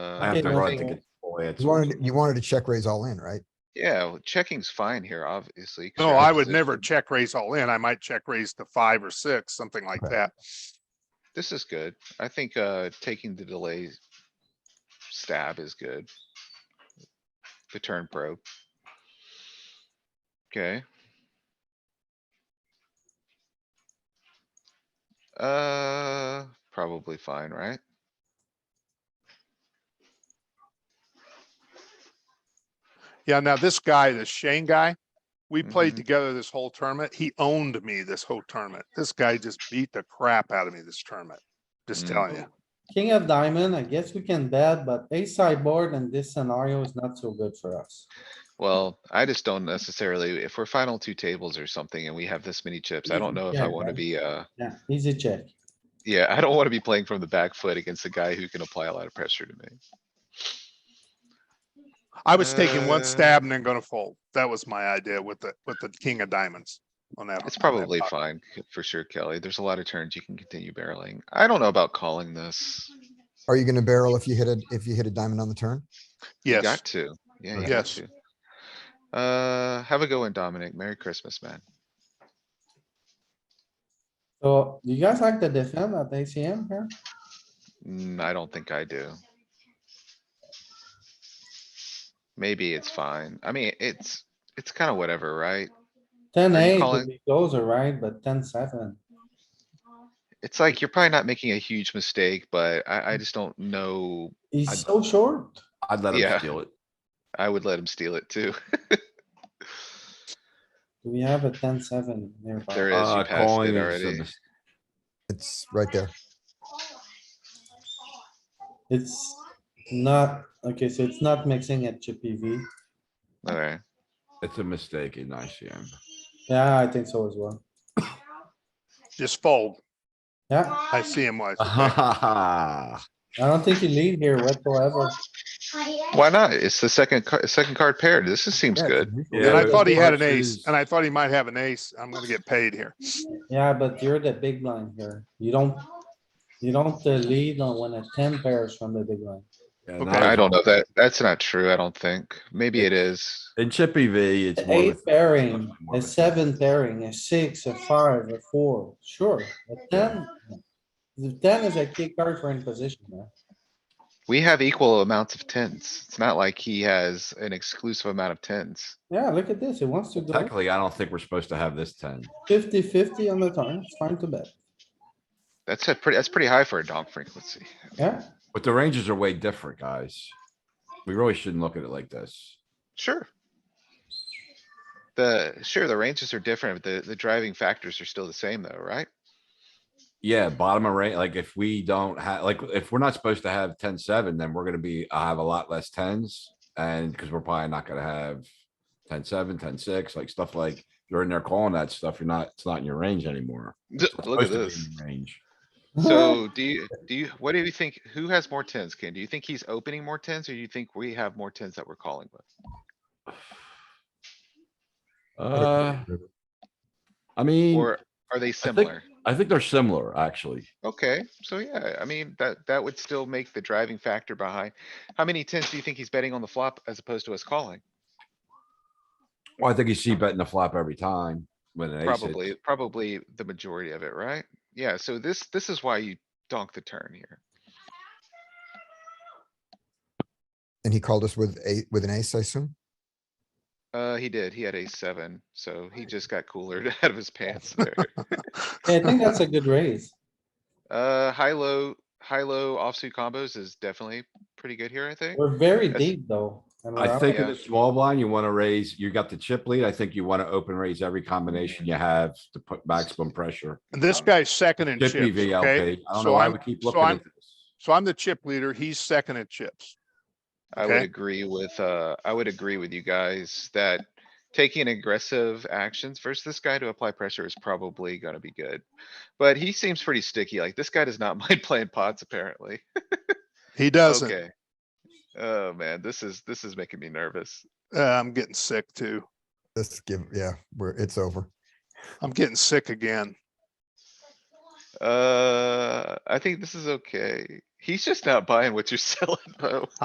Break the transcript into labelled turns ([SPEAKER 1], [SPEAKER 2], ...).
[SPEAKER 1] Uh,
[SPEAKER 2] I have
[SPEAKER 3] Okay,
[SPEAKER 2] to
[SPEAKER 3] no,
[SPEAKER 2] run
[SPEAKER 3] thank
[SPEAKER 2] to
[SPEAKER 3] you.
[SPEAKER 2] get. full
[SPEAKER 4] You
[SPEAKER 2] answers.
[SPEAKER 4] wanted, you wanted to check raise all in, right?
[SPEAKER 1] Yeah, well, checking's fine here, obviously. 'cause
[SPEAKER 5] No,
[SPEAKER 1] you're out of
[SPEAKER 5] I would never
[SPEAKER 1] position.
[SPEAKER 5] check raise all in. I might check raise to five or six, something like
[SPEAKER 4] Right.
[SPEAKER 5] that.
[SPEAKER 1] This is good. I think, uh, taking the delay stab is good. The turn probe. Okay. Uh, probably fine, right?
[SPEAKER 5] Yeah, now this guy, this Shane guy, we played
[SPEAKER 1] Mhm.
[SPEAKER 5] together this whole tournament. He owned me this whole tournament. This guy just beat the crap out of me this tournament. Just
[SPEAKER 1] Mm.
[SPEAKER 5] telling you.
[SPEAKER 3] King of diamond, I guess we can bet, but ace sideboard in this scenario is not so good for us.
[SPEAKER 1] Well, I just don't necessarily, if we're final two tables or something and we have this many chips, I don't know if
[SPEAKER 3] Yeah,
[SPEAKER 1] I wanna
[SPEAKER 3] right.
[SPEAKER 1] be, uh,
[SPEAKER 3] Yeah, easy check.
[SPEAKER 1] yeah, I don't wanna be playing from the back foot against a guy who can apply a lot of pressure to me.
[SPEAKER 5] I was taking one
[SPEAKER 1] Uh,
[SPEAKER 5] stab and then gonna fold. That was my idea with the, with the king of diamonds on
[SPEAKER 2] Oh,
[SPEAKER 5] that.
[SPEAKER 1] It's
[SPEAKER 5] on that
[SPEAKER 1] probably
[SPEAKER 5] pot.
[SPEAKER 1] fine c- for sure, Kelly. There's a lot of turns you can continue barreling. I don't know about calling this.
[SPEAKER 4] Are you gonna barrel if you hit a, if you hit a diamond on the turn?
[SPEAKER 1] You
[SPEAKER 5] Yes,
[SPEAKER 1] got to. Yeah, you got
[SPEAKER 5] Yes.
[SPEAKER 1] to. Uh, have a go in Dominic. Merry Christmas, man.
[SPEAKER 3] So do you guys like to defend at ACM here?
[SPEAKER 1] Mm, I don't think I do. Maybe it's fine. I mean, it's, it's kinda whatever, right?
[SPEAKER 3] Ten
[SPEAKER 1] Are you
[SPEAKER 3] eight
[SPEAKER 1] calling-
[SPEAKER 3] would be closer, right? But ten seven.
[SPEAKER 1] It's like you're probably not making a huge mistake, but I, I just don't know. I-
[SPEAKER 3] He's so short.
[SPEAKER 2] I'd Mm. let
[SPEAKER 1] Yeah.
[SPEAKER 2] him steal it.
[SPEAKER 1] I would let him steal it too.
[SPEAKER 3] Do we have a ten seven nearby?
[SPEAKER 1] There is, you
[SPEAKER 2] Uh,
[SPEAKER 1] passed
[SPEAKER 2] calling
[SPEAKER 1] it
[SPEAKER 2] is a
[SPEAKER 1] already.
[SPEAKER 2] mis-
[SPEAKER 4] It's right there.
[SPEAKER 3] It's not, okay, so it's not mixing at Chippy V.
[SPEAKER 1] Alright,
[SPEAKER 2] it's a mistake in ICM.
[SPEAKER 3] Yeah, I think so as well.
[SPEAKER 5] just fold.
[SPEAKER 3] Yeah,
[SPEAKER 5] I see him was.
[SPEAKER 2] Uh-huh.
[SPEAKER 3] I don't think you lead here whatsoever.
[SPEAKER 1] why not? It's the second, ca- second card paired. This is- seems
[SPEAKER 4] Yeah, it's
[SPEAKER 1] good.
[SPEAKER 4] unusual.
[SPEAKER 2] Yeah,
[SPEAKER 5] And I
[SPEAKER 2] but
[SPEAKER 5] thought he had an
[SPEAKER 2] Arch
[SPEAKER 5] ace
[SPEAKER 2] is-
[SPEAKER 5] and I thought he might have an ace. I'm gonna get paid here.
[SPEAKER 3] Yeah, but you're the big line here. You don't, you don't uh, lead on when a ten pairs from the big line.
[SPEAKER 2] Yeah,
[SPEAKER 5] Okay.
[SPEAKER 2] not
[SPEAKER 1] I
[SPEAKER 2] as-
[SPEAKER 1] don't know that. That's not true, I don't think. Maybe it is.
[SPEAKER 2] In Chippy V, it's more
[SPEAKER 3] Eight
[SPEAKER 2] of a-
[SPEAKER 3] pairing,
[SPEAKER 2] more
[SPEAKER 3] a
[SPEAKER 2] of a-
[SPEAKER 3] seven pairing, a six, a five, a four, sure, a ten. The ten is a key card for in position, man.
[SPEAKER 1] We have equal amounts of tens. It's not like he has an exclusive amount of tens.
[SPEAKER 3] Yeah, look at this. It wants to go
[SPEAKER 2] Technically, I don't think we're supposed to have this ten.
[SPEAKER 3] 50-50 on the turn. It's fine to bet.
[SPEAKER 1] That's a pretty, that's pretty high for a donk frequency.
[SPEAKER 3] Yeah,
[SPEAKER 2] But the ranges are way different, guys. We really shouldn't look at it like this.
[SPEAKER 1] Sure. The, sure, the ranges are different, but the, the driving factors are still the same though, right?
[SPEAKER 2] Yeah, bottom of range, like if we don't have, like, if we're not supposed to have ten seven, then we're gonna be, I have a lot less tens. And because we're probably not gonna have ten seven, ten six, like stuff like, you're in there calling that stuff, you're not, it's not in your range anymore. We're
[SPEAKER 1] Look at
[SPEAKER 2] supposed to be
[SPEAKER 1] this.
[SPEAKER 2] in Range.
[SPEAKER 1] So do you, do you, what do you think? Who has more tens, Ken? Do you think he's opening more tens or do you think we have more tens that we're calling with?
[SPEAKER 2] Uh, I mean,
[SPEAKER 1] Or are they similar?
[SPEAKER 2] I think they're similar, actually.
[SPEAKER 1] Okay, so yeah, I mean, that, that would still make the driving factor behind. How many tens do you think he's betting on the flop as opposed to us calling?
[SPEAKER 2] Well, I think you see betting the flop every time when an ace hits.
[SPEAKER 1] Probably, probably the majority of it, right? Yeah, so this, this is why you donk the turn here.
[SPEAKER 4] And he called us with a, with an ace, I assume?
[SPEAKER 1] Uh, he did. He had a seven, so he just got cooler out of his pants there.
[SPEAKER 3] Yeah, I think that's a good raise.
[SPEAKER 1] Uh, high, low, high, low offsuit combos is definitely pretty good here, I think.
[SPEAKER 3] We're very
[SPEAKER 1] That's-
[SPEAKER 3] deep though. and we're
[SPEAKER 2] I
[SPEAKER 3] out.
[SPEAKER 2] think in
[SPEAKER 1] Yeah.
[SPEAKER 2] the small blind, you wanna raise, you got the chip lead. I think you wanna open raise every combination you have to put maximum pressure.
[SPEAKER 5] And this guy's second in
[SPEAKER 2] Chip
[SPEAKER 5] chips, okay?
[SPEAKER 2] EV LP. I don't know
[SPEAKER 5] So
[SPEAKER 2] why
[SPEAKER 5] I'm,
[SPEAKER 2] we keep
[SPEAKER 5] so
[SPEAKER 2] looking
[SPEAKER 5] I'm-
[SPEAKER 2] at this.
[SPEAKER 5] so I'm the chip leader. He's second in chips.
[SPEAKER 1] I would
[SPEAKER 5] Okay.
[SPEAKER 1] agree with, uh, I would agree with you guys that taking aggressive actions versus this guy to apply pressure is probably gonna be good. But he seems pretty sticky, like this guy does not mind playing pots apparently.
[SPEAKER 5] He doesn't.
[SPEAKER 1] Okay. Oh, man, this is, this is making me nervous.
[SPEAKER 5] Uh, I'm getting sick too.
[SPEAKER 4] Let's give, yeah, we're, it's over.
[SPEAKER 5] I'm getting sick again.
[SPEAKER 1] Uh, I think this is okay. He's just not buying what you're selling though.